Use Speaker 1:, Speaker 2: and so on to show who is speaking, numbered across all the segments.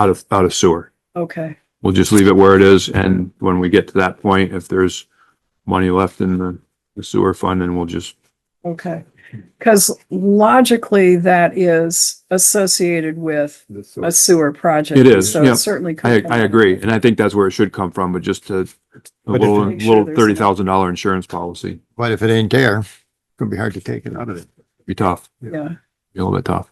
Speaker 1: out of, out of sewer.
Speaker 2: Okay,
Speaker 1: We'll just leave it where it is, and when we get to that point, if there's money left in the the sewer fund, then we'll just,
Speaker 2: okay. Because logically, that is associated with a sewer project.
Speaker 1: It is,
Speaker 2: So
Speaker 1: yeah.
Speaker 2: it certainly. could
Speaker 1: I,
Speaker 2: come
Speaker 1: I
Speaker 2: up.
Speaker 1: agree, and I think that's where it should come from, but just a a
Speaker 3: But if-
Speaker 1: little,
Speaker 2: Make sure
Speaker 1: little
Speaker 2: there's no-
Speaker 1: thirty thousand dollar insurance policy.
Speaker 3: But if it ain't there, it's gonna be hard to take it out of it.
Speaker 1: Be tough,
Speaker 2: Yeah.
Speaker 1: be a little bit tough.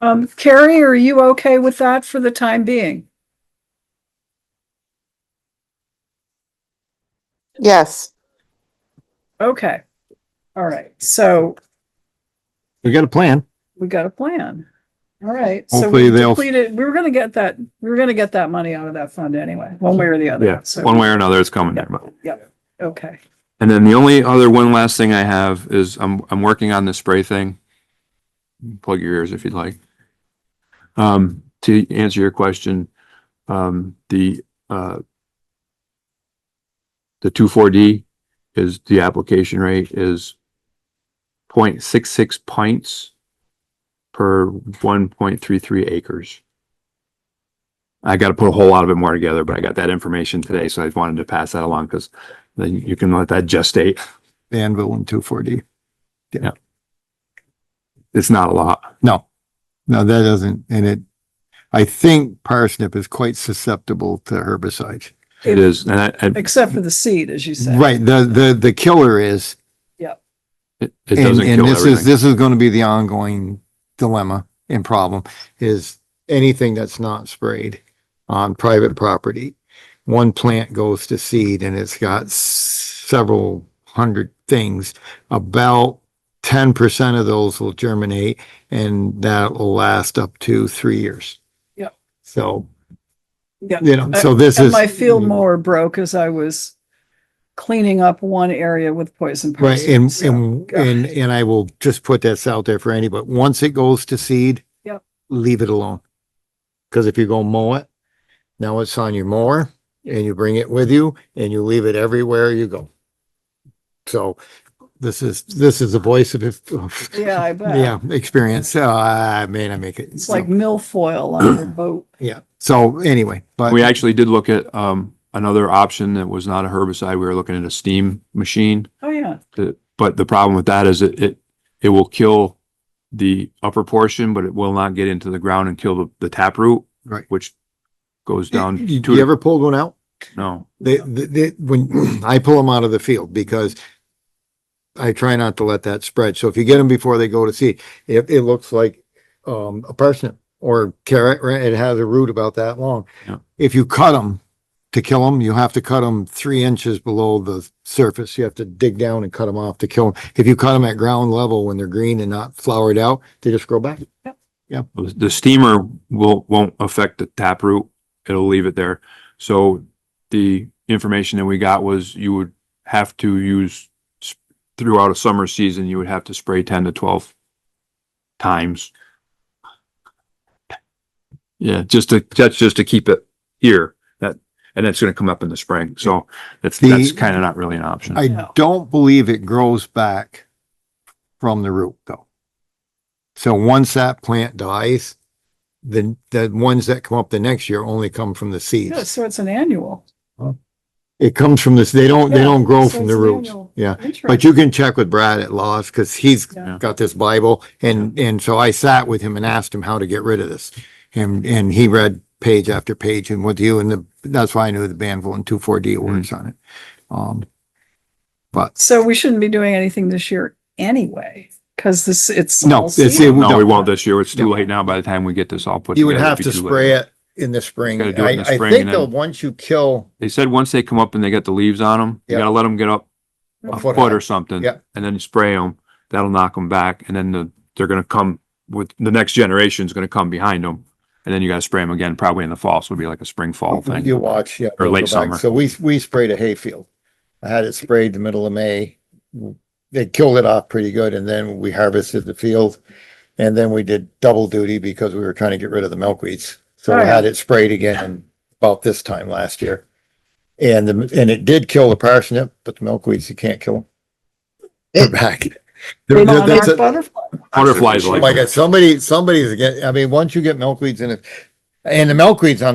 Speaker 2: Um, Carrie, are you okay with that for the time being?
Speaker 4: Yes,
Speaker 2: Okay. All right. So
Speaker 3: We got a plan.
Speaker 2: we got a plan. All right. So
Speaker 3: Hopefully
Speaker 2: we
Speaker 3: they'll-
Speaker 2: depleted, we were going to get that, we were going to get that money out of that fund anyway, one way or the other.
Speaker 1: Yeah,
Speaker 2: So-
Speaker 1: one way or another, it's coming there, but.
Speaker 2: Okay.
Speaker 1: And then the only other one last thing I have is I'm, I'm working on the spray thing. Plug your ears if you'd like. Um, to answer your question, um, the, uh, the two four D is, the application rate is point six six pints per one point three three acres. I gotta put a whole lot of it more together, but I got that information today, so I wanted to pass that along because then you can let that gestate.
Speaker 3: Danville and two four D.
Speaker 1: It's not a lot.
Speaker 3: No, no, that doesn't, and it, I think parsnip is quite susceptible to herbicides.
Speaker 1: It is, and I, I-
Speaker 2: Except for the seed, as you said.
Speaker 3: Right, the, the, the killer is,
Speaker 1: it it
Speaker 3: and,
Speaker 1: doesn't
Speaker 3: and
Speaker 1: kill
Speaker 3: this is,
Speaker 1: everything.
Speaker 3: this is gonna be the ongoing dilemma and problem, is anything that's not sprayed on private property. One plant goes to seed and it's got s- several hundred things. About ten percent of those will germinate and that will last up to three years.
Speaker 2: Yep.
Speaker 3: So,
Speaker 2: Yeah.
Speaker 3: you know, so this
Speaker 2: And
Speaker 3: is. Mm-hmm.
Speaker 2: my field mower broke as I was cleaning up one area with poison.
Speaker 3: Right,
Speaker 2: parsnip,
Speaker 3: and,
Speaker 2: so-
Speaker 3: and,
Speaker 2: God.
Speaker 3: and, and I will just put this out there for any, but once it goes to seed.
Speaker 2: Yep.
Speaker 3: Leave it alone. Cause if you go mow it, now it's on your mower and you bring it with you and you leave it everywhere you go. So this is, this is the voice of, of-
Speaker 2: Yeah, I bet.
Speaker 3: yeah, experience. So I may not make it.
Speaker 2: It's
Speaker 3: so,
Speaker 2: like milfoil on your boat.
Speaker 3: Yeah, so anyway, but.
Speaker 1: We actually did look at, um, another option that was not a herbicide. We were looking at a steam machine.
Speaker 2: Oh, yeah.
Speaker 1: to- But the problem with that is it, it, it will kill the upper portion, but it will not get into the ground and kill the, the taproot.
Speaker 3: Right.
Speaker 1: Which goes down
Speaker 3: You
Speaker 1: to,
Speaker 3: you ever pulled one out?
Speaker 1: no,
Speaker 3: They, they, they- when I pull them out of the field because I try not to let that spread. So if you get them before they go to seed, it, it looks like um, a parsnip or carrot, right? It has a root about that long.
Speaker 1: Yeah.
Speaker 3: If you cut them to kill them, you have to cut them three inches below the surface. You have to dig down and cut them off to kill them. If you cut them at ground level when they're green and not flowered out, they just grow back.
Speaker 1: the steamer will, won't affect the taproot. It'll leave it there. So the information that we got was you would have to use sp- throughout a summer season, you would have to spray ten to twelve times. Yeah, just to, that's just to keep it here, that, and it's gonna come up in the spring, so that's,
Speaker 3: The-
Speaker 1: that's kinda not really an option.
Speaker 3: I
Speaker 2: No.
Speaker 3: don't believe it grows back from the root though. So once that plant dies, then the ones that come up the next year only come from the
Speaker 2: Yeah,
Speaker 3: seeds.
Speaker 2: so it's an annual.
Speaker 3: It comes from this, they don't, they
Speaker 2: Yeah,
Speaker 3: don't grow
Speaker 2: so
Speaker 3: from
Speaker 2: it's
Speaker 3: the
Speaker 2: an
Speaker 3: roots.
Speaker 2: annual.
Speaker 3: Yeah. But
Speaker 2: Interesting.
Speaker 3: you can check with Brad at Laws because he's
Speaker 2: Yeah.
Speaker 3: got this Bible and, and so I sat with him and asked him how to get rid of this. And, and he read page after page and with you and the, that's why I knew the Banville and two, four D words on it. Um,
Speaker 2: So we shouldn't be doing anything this year anyway, because this, it's.
Speaker 3: No,
Speaker 2: all
Speaker 3: it's- it
Speaker 1: No,
Speaker 2: seed.
Speaker 1: we
Speaker 3: don't.
Speaker 1: won't this year, it's too
Speaker 3: Yeah.
Speaker 1: late now, by the time we get this all put.
Speaker 3: You would
Speaker 1: together,
Speaker 3: have to
Speaker 1: it'd be too late.
Speaker 3: spray it in the spring.
Speaker 1: Gotta do it in
Speaker 3: I,
Speaker 1: the
Speaker 3: I
Speaker 1: spring
Speaker 3: think
Speaker 1: and
Speaker 3: though,
Speaker 1: then-
Speaker 3: once you kill,
Speaker 1: They said once they come up and they got the leaves on them, you
Speaker 3: Yeah.
Speaker 1: gotta let them get up a
Speaker 3: A foot
Speaker 1: foot
Speaker 3: high.
Speaker 1: or something.
Speaker 3: Yeah.
Speaker 1: And then spray them, that'll knock them back, and then the, they're gonna come with, the next generation's gonna come behind them. And then you gotta spray them again, probably in the fall, so it'll be like a spring fall thing.
Speaker 3: you watch, yeah.
Speaker 1: Or
Speaker 3: they'll
Speaker 1: late
Speaker 3: go back.
Speaker 1: summer.
Speaker 3: So we, we sprayed a hayfield. I had it sprayed the middle of May. They killed it off pretty good and then we harvested the field. And then we did double duty because we were trying to get rid of the milkweeds. So I
Speaker 2: Alright.
Speaker 3: had it sprayed again about this time last year. And the, and it did kill the parsnip, but the milkweeds, you can't kill them. They're back. They're-
Speaker 2: Monarch
Speaker 3: they're- that's a-
Speaker 2: butterfly.
Speaker 1: Butterflies
Speaker 3: Oh my
Speaker 1: like,
Speaker 3: God, somebody, somebody's again, I mean, once you get milkweeds in it, And the milkweed's on the